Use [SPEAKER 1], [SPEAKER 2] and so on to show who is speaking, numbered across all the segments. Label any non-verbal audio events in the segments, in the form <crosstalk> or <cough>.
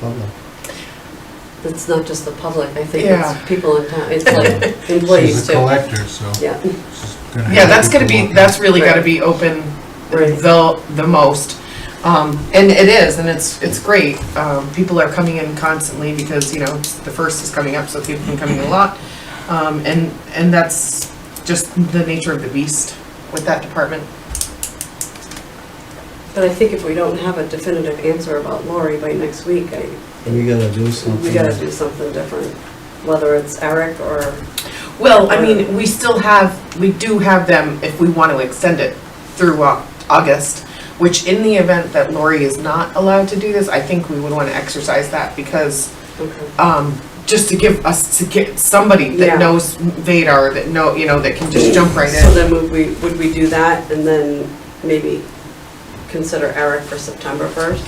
[SPEAKER 1] public.
[SPEAKER 2] It's not just the public, I think
[SPEAKER 3] Yeah.
[SPEAKER 2] it's people in town, it's like employees
[SPEAKER 1] <laughs> She's a
[SPEAKER 2] too.
[SPEAKER 1] collector, so
[SPEAKER 2] Yeah,
[SPEAKER 1] she's gonna have.
[SPEAKER 3] Yeah, that's gonna be,
[SPEAKER 1] people
[SPEAKER 3] that's really gotta be open
[SPEAKER 2] Right.
[SPEAKER 3] the, the most. Um, and it is, and it's, it's great. Um, people are coming in constantly because, you know, the first is coming up, so people have been coming a lot. Um, and, and that's just the nature of the beast with that department.
[SPEAKER 2] but I think if we don't have a definitive answer about Lori by next week, I,
[SPEAKER 1] We gotta do something.
[SPEAKER 2] we gotta do something different, whether it's Eric or,
[SPEAKER 3] Well, I mean, we still have, we do have them if we want to extend it through Au- August, which in the event that Lori is not allowed to do this, I think we would want to exercise that because
[SPEAKER 2] okay,
[SPEAKER 3] um, just to give us, to get somebody
[SPEAKER 2] Yeah.
[SPEAKER 3] that knows Vadar, that know, you know, that can just jump right
[SPEAKER 2] so
[SPEAKER 3] in.
[SPEAKER 2] then would we, would we do that and then maybe consider Eric for September first?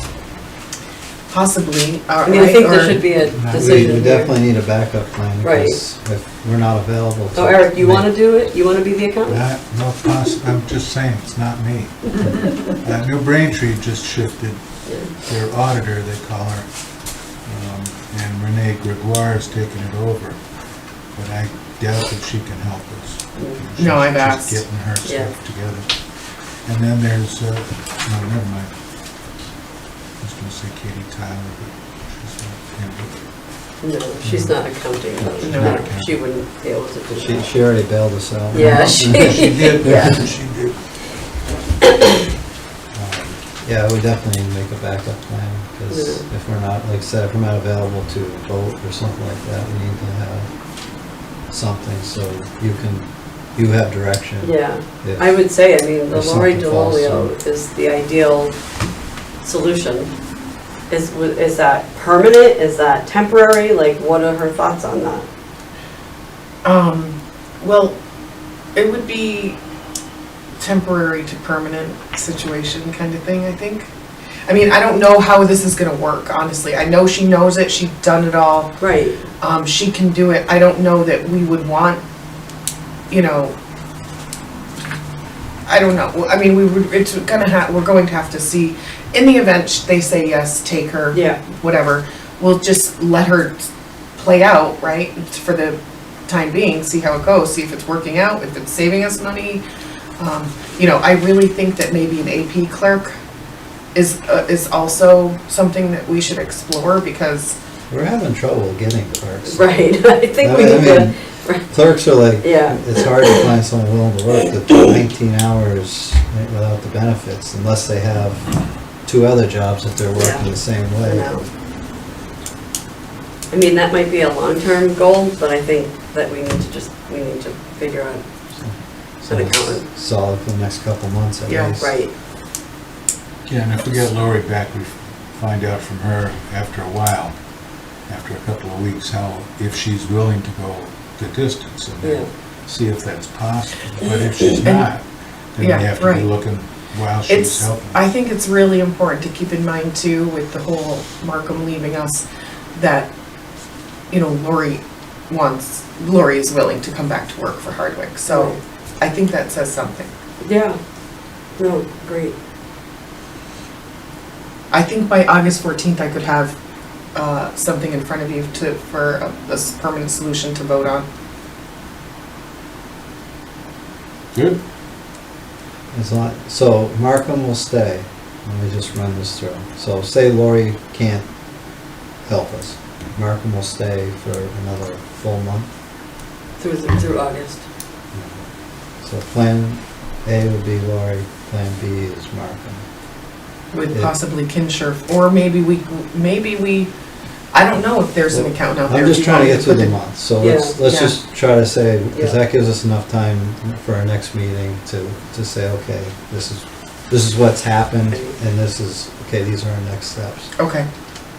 [SPEAKER 3] Possibly, or,
[SPEAKER 2] I mean, I think there
[SPEAKER 3] Uh, or-
[SPEAKER 2] should be a
[SPEAKER 1] No, we- We
[SPEAKER 2] decision here.
[SPEAKER 1] definitely need a backup plan
[SPEAKER 2] Right.
[SPEAKER 1] because if we're not available. to-
[SPEAKER 2] So Eric, you wanna do it, you wanna be the accountant?
[SPEAKER 1] Not, no, poss- I'm just saying, it's not me. Uh, New Braintree just shifted their auditor, they call her. um, And Renee Gregoire is taking it over, but I doubt that she can help us. She's
[SPEAKER 3] No, I've
[SPEAKER 1] just
[SPEAKER 3] asked.
[SPEAKER 1] Getting her
[SPEAKER 2] Yeah.
[SPEAKER 1] stuff together. And then there's, uh, no, never mind. I was gonna say Katie Tyler, but she's not, yeah,
[SPEAKER 2] No, she's not accounting, but
[SPEAKER 1] She's
[SPEAKER 3] not
[SPEAKER 2] no, she wouldn't be able to do
[SPEAKER 4] She,
[SPEAKER 2] that.
[SPEAKER 4] she already bailed us out. <laughs>
[SPEAKER 2] Yeah, <laughs>
[SPEAKER 1] but-
[SPEAKER 2] she,
[SPEAKER 1] She did,
[SPEAKER 2] yeah.
[SPEAKER 1] she did. Um,
[SPEAKER 4] Yeah, we definitely need to make a backup plan, because
[SPEAKER 2] Yeah.
[SPEAKER 4] if we're not, like I said, if we're not available to vote or something like that, we need to have something, so you can, you have direction.
[SPEAKER 2] yeah.
[SPEAKER 4] if-
[SPEAKER 2] I would say, I mean, the
[SPEAKER 4] If
[SPEAKER 2] Lori
[SPEAKER 4] something falls
[SPEAKER 2] DeLolio is the ideal solution. Is, w- is that permanent, is that temporary, like, what are her thoughts on that?
[SPEAKER 3] Um, well, it would be temporary to permanent situation kind of thing, I think. I mean, I don't know how this is gonna work, honestly. I know she knows it, she's done it all,
[SPEAKER 2] Right,
[SPEAKER 3] um, she can do it. I don't know that we would want, you know, I don't know. Well, I mean, we would, it's gonna ha, we're going to have to see, in the event sh- they say yes, take her,
[SPEAKER 2] yeah,
[SPEAKER 3] whatever, we'll just let her play out, right, for the time being, see how it goes, see if it's working out, if it's saving us money. Um, You know, I really think that maybe an AP clerk is, uh, is also something that we should explore because,
[SPEAKER 4] We're having trouble getting clerks.
[SPEAKER 2] right, <laughs> I think we
[SPEAKER 4] I
[SPEAKER 2] need to,
[SPEAKER 4] mean,
[SPEAKER 2] <laughs>
[SPEAKER 4] Clerks are like,
[SPEAKER 2] Yeah.
[SPEAKER 4] it's hard to find someone willing to work the nineteen hours without the benefits, unless they have two other jobs that they're working the same
[SPEAKER 2] I
[SPEAKER 4] way.
[SPEAKER 2] know. I mean, that might be a long-term goal, but I think that we need to just, we need to figure out,
[SPEAKER 4] So
[SPEAKER 2] An
[SPEAKER 4] it's
[SPEAKER 2] accountant.
[SPEAKER 4] Solid for the next couple months at
[SPEAKER 3] Yeah,
[SPEAKER 4] least.
[SPEAKER 2] right,
[SPEAKER 1] Yeah, and if we get Lori back, we find out from her after a while, after a couple of weeks, how, if she's willing to go the distance and
[SPEAKER 2] yeah,
[SPEAKER 1] then see if that's possible. But if she's not, then we
[SPEAKER 3] Yeah,
[SPEAKER 1] have to be
[SPEAKER 3] right.
[SPEAKER 1] looking while she's
[SPEAKER 3] It's,
[SPEAKER 1] helping.
[SPEAKER 3] I think it's really important to keep in mind too, with the whole Markham leaving us, that, you know, Lori wants, Lori is willing to come back to work for Hardwick, so I think that says something.
[SPEAKER 2] yeah, no, great,
[SPEAKER 3] I think by August fourteenth, I could have, uh, something in front of you to, for a, a s- permanent solution to vote on.
[SPEAKER 1] Good.
[SPEAKER 4] As long, so Markham will stay, let me just run this through. So say Lori can't help us, Markham will stay for another full month.
[SPEAKER 2] through, the- through August,
[SPEAKER 4] So plan A would be Lori, plan B is Markham.
[SPEAKER 3] With
[SPEAKER 4] Yeah.
[SPEAKER 3] possibly Kinshirf, or maybe we, maybe we, I don't know if there's an accountant out there.
[SPEAKER 4] I'm
[SPEAKER 3] if
[SPEAKER 4] just
[SPEAKER 3] you
[SPEAKER 4] trying to
[SPEAKER 3] want
[SPEAKER 4] get through
[SPEAKER 3] put
[SPEAKER 4] the
[SPEAKER 3] the-
[SPEAKER 4] month, so let's,
[SPEAKER 2] <laughs> Yeah.
[SPEAKER 4] let's
[SPEAKER 3] Yeah.
[SPEAKER 4] just try to say, because
[SPEAKER 2] Yeah.
[SPEAKER 4] that gives us enough time for our next meeting to, to say, okay, this is, this is what's happened, and this is, okay, these are our next steps.
[SPEAKER 3] Okay,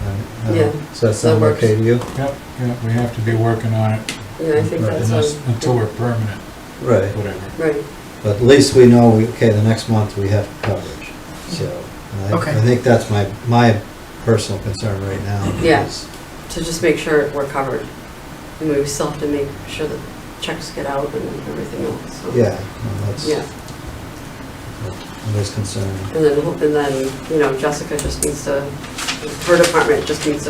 [SPEAKER 4] And, uh,
[SPEAKER 2] Yeah.
[SPEAKER 4] So that
[SPEAKER 2] That
[SPEAKER 4] sound
[SPEAKER 2] works.
[SPEAKER 4] okay to you?
[SPEAKER 1] Yep, yep, we have to be working on it
[SPEAKER 2] yeah, I think
[SPEAKER 4] Right,
[SPEAKER 2] that's.
[SPEAKER 1] unless,
[SPEAKER 2] a-
[SPEAKER 1] until we're permanent,
[SPEAKER 4] Right.
[SPEAKER 1] whatever.
[SPEAKER 2] Right,
[SPEAKER 4] But at least we know, we- okay, the next month we have coverage, so. and I-
[SPEAKER 3] Okay.
[SPEAKER 4] I think that's my, my personal concern right now.
[SPEAKER 2] Yeah.
[SPEAKER 4] because-
[SPEAKER 2] to just make sure we're covered. I mean, we still have to make sure that checks get out and everything else, so.
[SPEAKER 4] Yeah, no, that's,
[SPEAKER 2] Yeah,
[SPEAKER 4] that is concerning.
[SPEAKER 2] and then, and then, you know, Jessica just needs to, her department just needs to